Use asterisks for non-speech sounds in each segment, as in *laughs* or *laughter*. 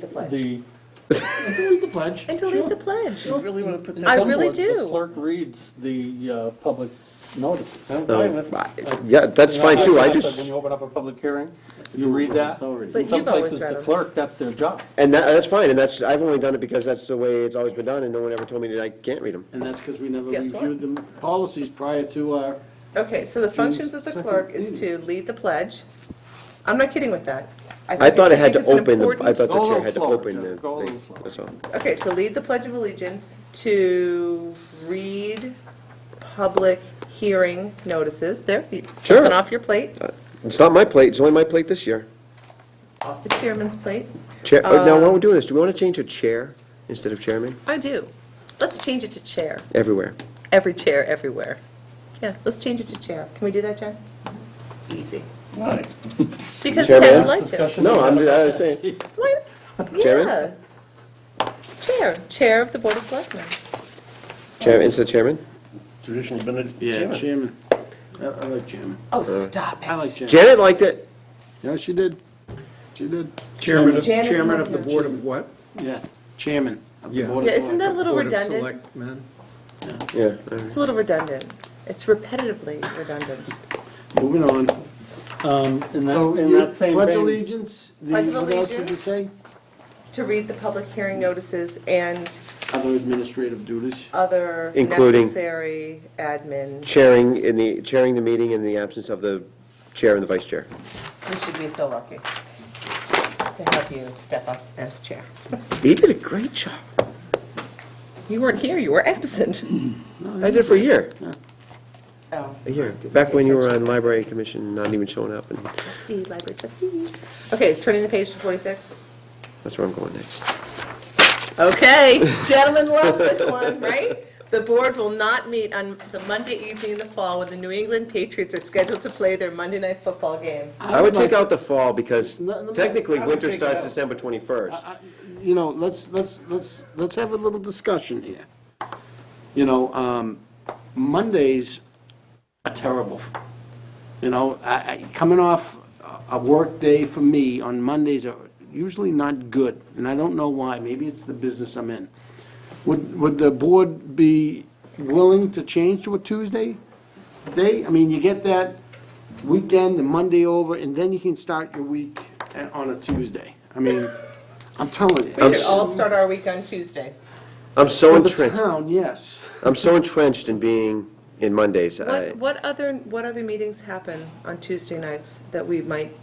the pledge. The. Delete the pledge. And delete the pledge. You really want to put I that? really somewhat do. The clerk reads the uh, public notices. I'm fine with Uh, Yeah, that's fine too, I just, When you open up a public hearing, you read that. Authority. But In some you've always places, read the them. clerk, that's their job. and that, that's fine, and that's, I've only done it because that's the way it's always been done, and no one ever told me that I can't read them. And that's because we never Guess what? reviewed the policies prior to our, Okay, so the functions of the Second clerk is to lead the pledge. I'm not kidding with that. I think- thought it had think it's to an open, the I important- thought Go a the chair little had to slower, open the Jeff, go a little thing, slower. that's all. Okay, to lead the Pledge of Allegiance, to read public hearing notices, there, you- Sure. Uh, something off your plate, It's not my plate, it's only my plate this year. off the chairman's plate. Chair, oh, now, while we're doing this, do we want to change to chair instead of chairman? I do. Let's change it to chair, Everywhere. every chair, everywhere. Yeah, let's change it to chair. Can we do that, Jen? Easy. why? Because Chairman? Ken would like to. Discussion. No, I'm, just- I was saying, Why- Chairman? yeah. Chair, Chair of the Board of Selectmen. chair, instead of chairman? Traditionally been a Yeah, chairman. chairman. I I like chairman. Oh, stop I like chairman. Janet liked it. Yeah, she did. She did. Chairman of, Janet's chairman not of the here. board of what? Yeah, chairman of the Yeah. board of Yeah, isn't that a selectmen. little Board of redundant? Selectmen. Yeah, all right. It's a little redundant. It's repetitively redundant. Moving on. Um, in that, So in you that same pledge vein, allegiance, the- Pledge of what else did you allegiance. say? To read the public hearing notices and Other administrative duties. other Including- necessary admin. chairing in the, chairing the meeting in the absence of the chair and the vice chair. We should be so lucky to have you step up as chair. He did a great job. You weren't here, you were absent. I did for a year, Oh. a year, back when you were on library commission, not even showing up, and Trustee, library trustee. Okay, turning the page to 46. that's where I'm going next. Okay, *laughs* gentlemen love this one, *laughs* right? The board will not meet on the Monday evening in the fall when the New England Patriots are scheduled to play their Monday night football game. I would take out the fall because No, no, technically, I would winter take it starts out. December twenty-first. I- you know, let's, let's, let's, let's have a little discussion here. You know, um, Mondays are terrible. You know, I, I, coming off a work day for me on Mondays are usually not good, and I don't know why, maybe it's the business I'm in. Would, would the board be willing to change to a Tuesday day? I mean, you get that weekend, the Monday over, and then you can start your week a- on a Tuesday. I mean, I'm telling you. We should all start our week on Tuesday. I'm so For the entrenched, town, yes. I'm so entrenched in being in Mondays. I, What, what other, what other meetings happen on Tuesday nights that we might,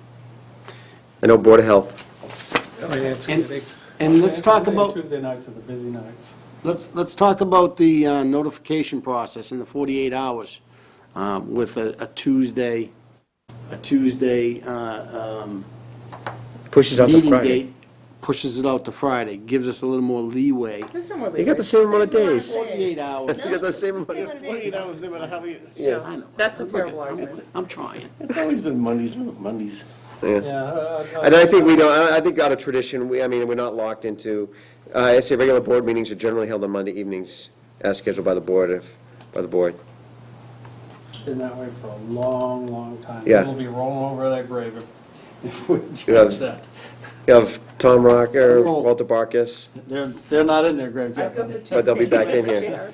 I know Board of Health, Finance And- committee. And let's talk Tuesday- about, Tuesday nights are the busy nights. let's, let's talk about the uh, notification process in the 48 hours um, with a a Tuesday, a Tuesday uh, um, pushes out to meeting Friday. date, pushes it out to Friday, gives us a little more leeway. there's no more leeway. You got the same amount of days. 48 *laughs* hours. You got the same amount Same of- amount of Twenty days. hours, no matter how you, Yeah, I know. That's a Look at- terrible I'm- argument. I'm trying. it's always been Mondays, not Mondays. Yeah. Yeah. uh, uh, And I think we don't, I I think out of tradition, we, I mean, we're not locked into, uh, I say regular board meetings are generally held on Monday evenings as scheduled by the board, if, by the board. Been that way for a long, long time. Yeah. It'll be rolling over that grave if- if we Yeah. change that. You have Tom Rocker, Roll. Walter Barkus, They're, they're not in their graves I'd yet. go for Tuesday. But Oh, they'll be back in anyway, here. Chair.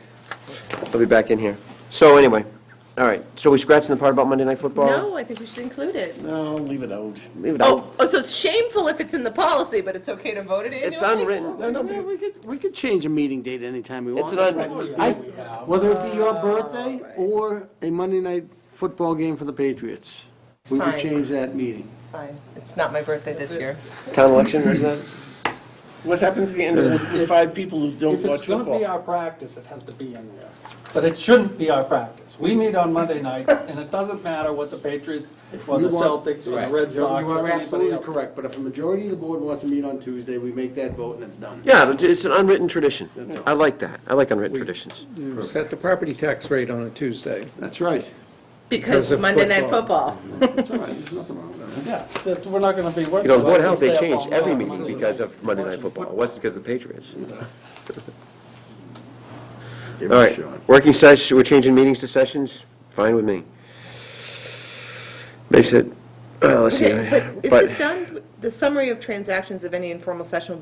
I'll be back in here. So anyway, all right, so we scratching the part about Monday Night Football? No, I think we should include it. No, leave it out. Leave it out. Oh, oh, so it's shameful if it's in the policy, but it's okay to vote it It's annually? unwritten. No, no, we could, we could change a meeting date anytime we want. It's an unwritten- That's what we- I- Whether it be your birthday or a Monday night football game for the Patriots, we would Fine. change that meeting. Fine, it's not my birthday this year. Town election, is that? What happens if you end up with- with five people who don't If watch it's going to be football? our practice, it has to be in there. But it shouldn't be our practice. We meet on Monday *laughs* night, and it doesn't matter what the Patriots, or the You want- Celtics, or the Right. Red Sox, You- You or are anybody absolutely else. correct, but if a majority of the board wants to meet on Tuesday, we make that vote and it's done. Yeah, but it's an unwritten tradition. I like that. I like unwritten traditions. You Set the property tax rate on a Tuesday. That's right. Because Because of Monday Night Football. That's all right, there's nothing wrong with that. Yeah, that we're not going to be working. You know, Board on of Health, they this changed day every on meeting Monday because night. of Monday Night Football. It wasn't because of the Patriots. *laughs* Give All it a right, shot. working session, we're changing meetings to sessions? Fine with me. Makes it, uh, let's see. Okay, but is but- this done? The summary of transactions of any informal session will be